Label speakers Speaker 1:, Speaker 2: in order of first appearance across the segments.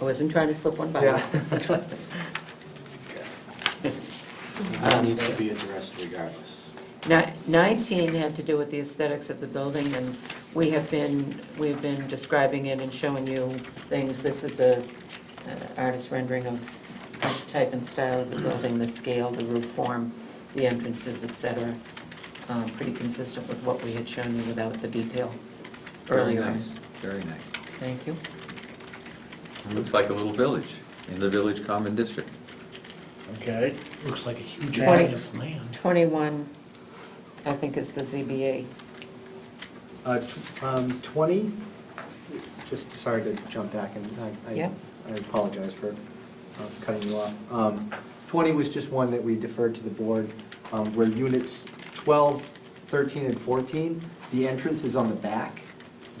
Speaker 1: I wasn't trying to slip one by.
Speaker 2: Yeah.
Speaker 3: That needs to be addressed regardless.
Speaker 1: Um, Ni- 19 had to do with the aesthetics of the building, and we have been, we've been describing it and showing you things. This is a uh, artist rendering of of type and style of the building, the scale, the roof form, the entrances, et cetera. Um, Pretty consistent with what we had shown you without the detail
Speaker 4: Very
Speaker 1: earlier.
Speaker 4: nice, very nice.
Speaker 1: Thank you.
Speaker 4: Looks like a little village in the Village Common District.
Speaker 5: Okay.
Speaker 6: Looks like a huge
Speaker 1: Twenty.
Speaker 6: body of land.
Speaker 1: 21, I think, is the ZBA.
Speaker 2: Uh, tw- um, 20, just, sorry to jump back, and I-
Speaker 1: Yeah.
Speaker 2: I I apologize for um, cutting you off. Um, 20 was just one that we deferred to the board, um, where units 12, 13, and 14, the entrance is on the back,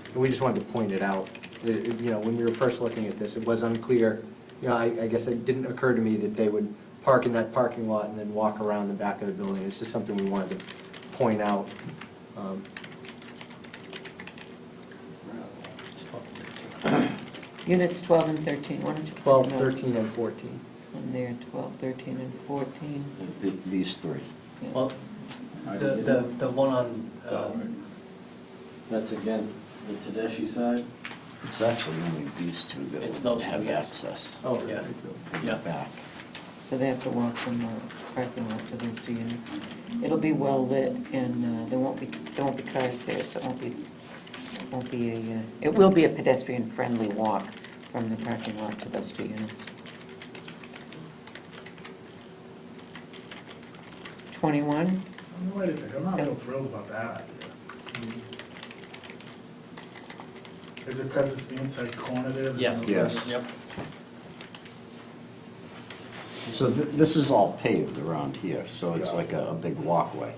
Speaker 2: and we just wanted to point it out. It- it- You know, when we were first looking at this, it was unclear, you know, I I guess it didn't occur to me that they would park in that parking lot and then walk around the back of the building. It's just something we wanted to point out. Um,
Speaker 1: Units 12 and 13, why don't you? put
Speaker 2: 12,
Speaker 1: them out?
Speaker 2: 13, and 14.
Speaker 1: And there, 12, 13, and 14.
Speaker 3: Th- These three.
Speaker 1: yeah.
Speaker 7: Well, the, the, the one on, uh,
Speaker 3: That's again, the Tedeschi side? It's actually only these two
Speaker 7: It's
Speaker 3: that
Speaker 7: those two,
Speaker 3: have
Speaker 7: yes.
Speaker 3: access
Speaker 2: Oh,
Speaker 7: Yeah.
Speaker 2: it's those.
Speaker 3: in the
Speaker 7: Yeah.
Speaker 3: back.
Speaker 1: So they have to walk from the parking lot to those two units. It'll be well lit and uh, there won't be, there won't be cars there, so it won't be, it won't be a, uh, it will be a pedestrian-friendly walk from the parking lot to those two units. 21,
Speaker 5: Wait a second, I'm not real thrilled about that idea. Is it because it's the inside corner there? there's
Speaker 7: yes.
Speaker 5: no-
Speaker 3: Yes.
Speaker 7: Yep.
Speaker 3: So th- this is all paved around here, so it's like a a big walkway.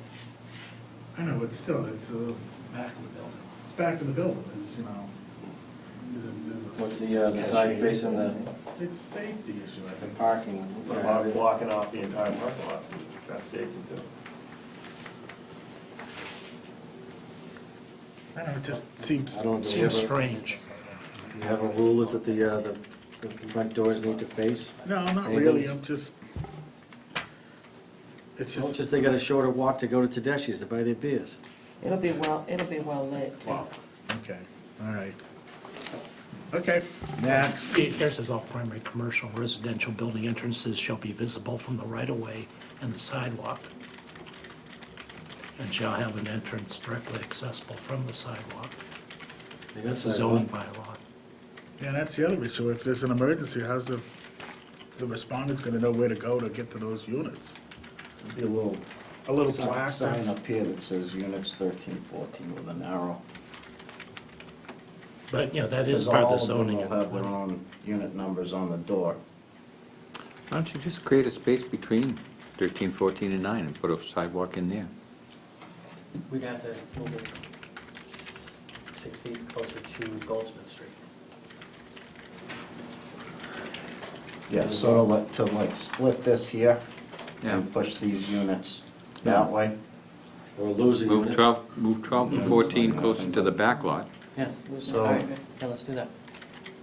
Speaker 5: I know, but still, it's uh
Speaker 7: Back of the building.
Speaker 5: it's back in the building, it's, you know, there's a, there's a.
Speaker 3: uh, side facing the
Speaker 5: It's safety issue, I think.
Speaker 3: parking?
Speaker 8: What about blocking off the entire parking lot? That's safety too.
Speaker 5: I don't know, it just seems,
Speaker 3: I don't believe
Speaker 6: Seems
Speaker 3: it.
Speaker 6: strange.
Speaker 3: You have a rule, is that the, uh, the the front doors need to face?
Speaker 5: no, not
Speaker 3: Anything?
Speaker 5: really, I'm just, it's
Speaker 8: It's
Speaker 5: just,
Speaker 8: just they got a shorter walk to go to Tedeschi's to buy their beers.
Speaker 1: it'll be well, it'll be well lit. too.
Speaker 5: wow, okay, all right. Okay, next.
Speaker 6: It- Here's says all primary commercial and residential building entrances shall be visible from the right-of-way and the sidewalk, and shall have an entrance directly accessible from the sidewalk.
Speaker 8: They got
Speaker 6: That's the
Speaker 8: sidewalk.
Speaker 6: zoning bylaw.
Speaker 5: Yeah, and that's the other issue, if there's an emergency, how's the, the respondent's gonna know where to go to get to those units?
Speaker 3: Be a little
Speaker 5: A little
Speaker 3: sign-
Speaker 5: plaque
Speaker 3: Sign
Speaker 5: that's,
Speaker 3: up here that says units 13, 14 with an arrow.
Speaker 6: But, you know, that is
Speaker 3: Because
Speaker 6: part of the
Speaker 3: all them
Speaker 6: zoning.
Speaker 3: will have their own unit numbers on the door.
Speaker 4: Why don't you just create a space between 13, 14, and 9 and put a sidewalk in there?
Speaker 7: We'd have to move it six feet closer to Goldsmith Street.
Speaker 3: Yeah, sort of like, to like split this here
Speaker 4: Yeah.
Speaker 3: and push these units that way.
Speaker 8: Or losing.
Speaker 4: Move 12, move 12 and 14 closer to the back lot.
Speaker 7: Yeah.
Speaker 1: Lose the
Speaker 3: So-
Speaker 1: parking.
Speaker 7: Yeah, let's do that.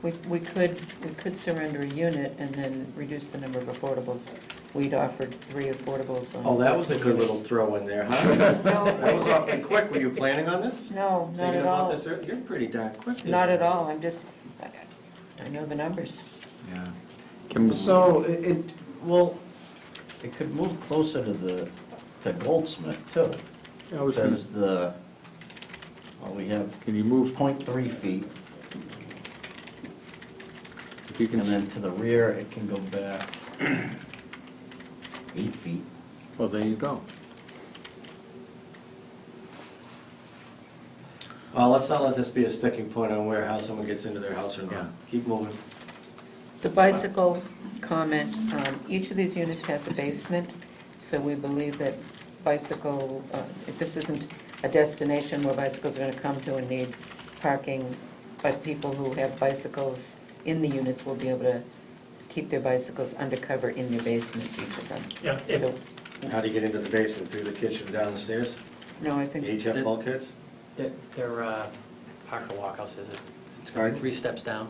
Speaker 1: We, we could, we could surrender a unit and then reduce the number of affordables. We'd offered three affordables on.
Speaker 2: Oh, that was a good
Speaker 1: units.
Speaker 2: little throw in there, huh? That was
Speaker 1: No,
Speaker 2: awfully quick. Were you planning on this?
Speaker 1: no, not
Speaker 2: Thinking
Speaker 1: at
Speaker 2: about
Speaker 1: all,
Speaker 2: this ear- You're pretty darn quick.
Speaker 1: not at all, I'm just, I- I know the numbers.
Speaker 4: Yeah. Can we-
Speaker 3: So it- it, well, it could move closer to the, to Goldsmith too.
Speaker 4: I was gonna-
Speaker 3: Because the, well, we have
Speaker 4: Can you move,
Speaker 3: point three feet
Speaker 4: if you can,
Speaker 3: and then
Speaker 4: s-
Speaker 3: to the rear, it can go back eight feet.
Speaker 4: well, there you go.
Speaker 8: Well, Uh, let's not let this be a sticking point on where, how someone gets into their house or
Speaker 4: Yeah.
Speaker 8: not. Keep moving.
Speaker 1: The bicycle comment, um, each of these units has a basement, so we believe that bicycle, uh, if this isn't a destination where bicycles are gonna come to and need parking, but people who have bicycles in the units will be able to keep their bicycles undercover in their basements, each of them.
Speaker 6: Yeah,
Speaker 1: So,
Speaker 6: it-
Speaker 8: How do you get into the basement? Through the kitchen, down the stairs?
Speaker 1: no, I
Speaker 8: Do
Speaker 1: think.
Speaker 8: you each have
Speaker 7: The-
Speaker 8: bulkheads?
Speaker 7: Their, their uh, partial walkouts is it? It's
Speaker 8: Sorry?
Speaker 7: Three steps down.